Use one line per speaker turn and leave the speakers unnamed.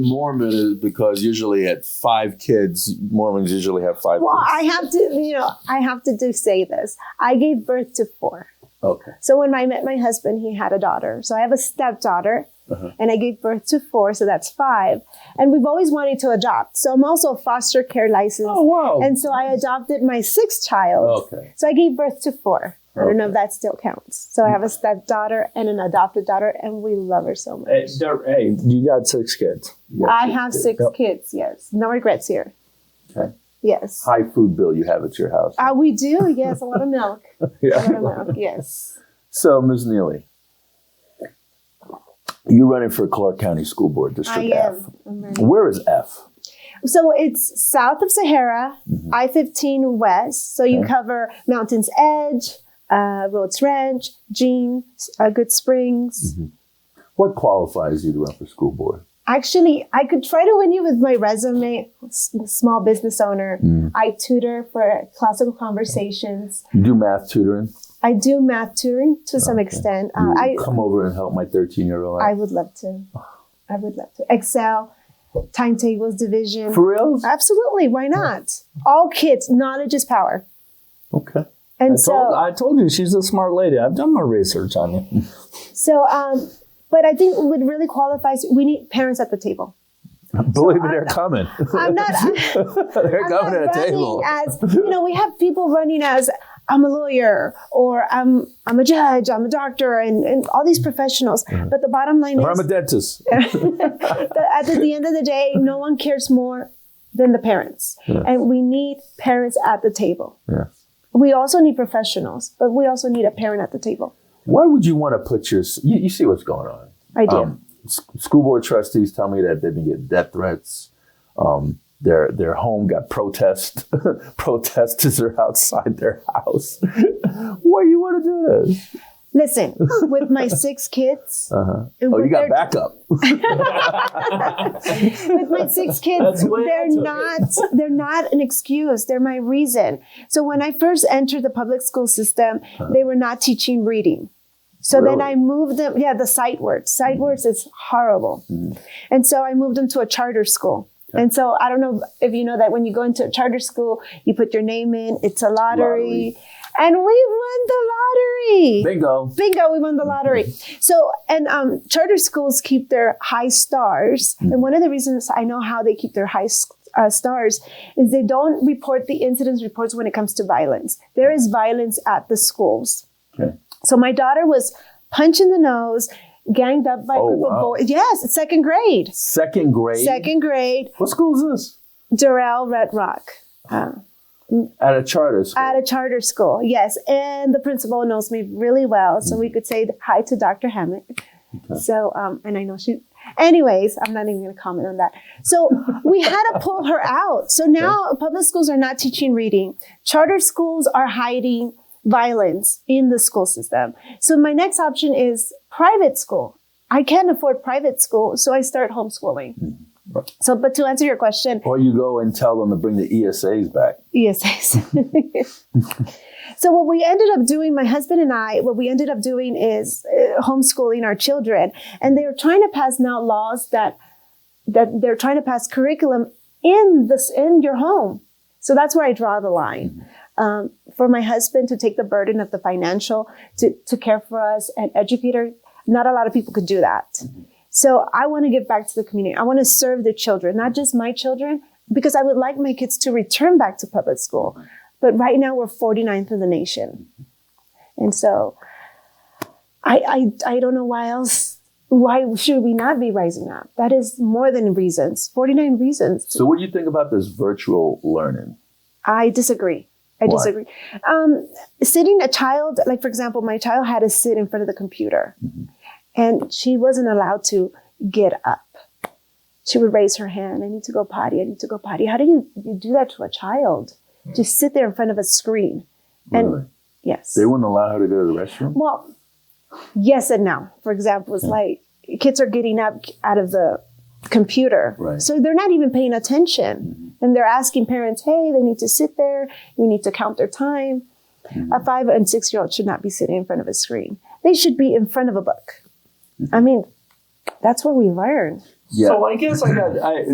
Mormon is because usually at five kids, Mormons usually have five
Well,
kids.
I have to, you know, I have to do say this. I gave birth to four.
Okay.
So when I met my husband, he had a daughter. So I have a stepdaughter,
Uh-huh.
and I gave birth to four, so that's five. And we've always wanted to adopt. So I'm also a foster care license.
Oh, wow.
And so I adopted my sixth child.
Okay.
So I gave birth to four. I don't know if
Okay.
that still counts. So I have a stepdaughter and an adopted daughter, and we love her so much.
Hey, there- hey, you got six kids.
You got
I
six
have
kids.
six
Yep.
kids. Yes, no regrets here.
Okay.
Yes.
High food bill you have at your house.
Uh, we do. Yes, a lot of milk. A lot
yeah.
of milk. Yes.
So, Ms. Neely, you're running for Clark County School Board
I
District F.
am. I'm ready.
Where is F?
So it's south of Sahara, I 15 west. So you
Mm-hmm. Okay.
cover Mountain's Edge, uh, Rhodes Ranch, Jean, uh, Good Springs.
Mm-hmm. What qualifies you to run for school board?
Actually, I could try to win you with my resume, s- small business owner.
Mm.
I tutor for classical conversations.
You do math tutoring.
I do math tutoring to some extent. Uh,
You
I,
come over and help my 13 year old.
I would love to. I would love to. Excel, timetables, division.
For real?
Absolutely. Why not? All kids, knowledge is power.
Okay.
And
I
so,
told, I told you she's a smart lady. I've done my research on you.
so, um, but I think what really qualifies, we need parents at the table.
Believe me, they're coming.
I'm not, I'm
they're
not
coming to the
running
table.
as, you know, we have people running as, I'm a lawyer or I'm, I'm a judge, I'm a doctor and, and all these professionals. But the bottom line
Or Mm-hmm. I'm a
is
dentist.
that at the, the end of the day, no one cares more than the parents. And we need parents at the table.
Yeah.
We also need professionals, but we also need a parent at the table.
Why would you want to put your? You, you see what's going on.
I do.
Um, s- school board trustees tell me that they've been getting death threats. Um, their their home got protest. Protesters are outside their house. Why you want to do this?
Listen, with my six kids,
Uh-huh.
and
Oh, you
with
got
their-
backup.
with my six kids,
That's way
they're
into it.
not they're not an excuse. They're my reason. So when I first entered the public school system, they were not teaching reading. So then
Uh-huh. Really? Mm-hmm.
I moved them. Yeah, the sight words. Sight words is horrible. And so I moved them to a charter school. And so I don't know if you know that when you go into a charter school, you put your name in. It's a lottery,
Lottery.
and we won the lottery.
Bingo.
Bingo, we won the lottery. So, and um, charter schools keep their high stars.
Hmm.
And one of the reasons I know how they keep their high s- uh, stars is they don't report the incidents reports when it comes to violence. There is violence at the schools.
Okay.
So, my daughter was punched in the nose, ganged up by
Oh,
a group
wow.
of boys. Yes, second grade.
Second grade.
Second grade,
What school is this?
Durrell Red Rock. Uh,
At a charter school.
at a charter school, yes. And the principal knows me really well, so we could say hi to Dr. Hammett. So, um, and I know she, anyways, I'm not even gonna comment on that. So we had to pull her out. So now public schools are not teaching reading, charter schools are hiding violence in the school system. So my next option is private school. I can't afford private school, so I start homeschooling. So, but to answer your question,
or you go and tell them to bring the ESAs back.
ESAs. E so what we ended up doing, my husband and I, what we ended up doing is uh, homeschooling our children, and they're trying to pass now laws that that they're trying to pass curriculum in this in your home. So that's where I draw the line. Um, for my husband to take the burden of the financial to, to care for us and educator, not a lot of people could do that. So I want to give back to the community. I want to serve the children, not just my children, because I would like my kids to return back to public school. But right now we're 49th in the nation. And so I, I, I don't know why else, why should we not be rising up? That is more than reasons, 49 reasons.
So what do you think about this virtual learning?
I disagree. I
Why?
disagree. Um, sitting a child, like for example, my child had to sit in front of the computer and she wasn't allowed to get up. She would raise her hand, I need to go potty, I need to go potty. How do you, you do that to a child? Just sit there in front of a screen. And
Hmm. Really?
yes.
They wouldn't allow her to go to the restroom?
Well, yes and no. For example, it's like kids are getting up out of the computer.
Right.
So they're not even paying attention. And they're asking parents, hey, they need to sit there. We need to count their time. A five and six year old should not be sitting in front of a screen, they should be in front of a book. I mean, that's where we learn.
Yeah.
So I guess I got I,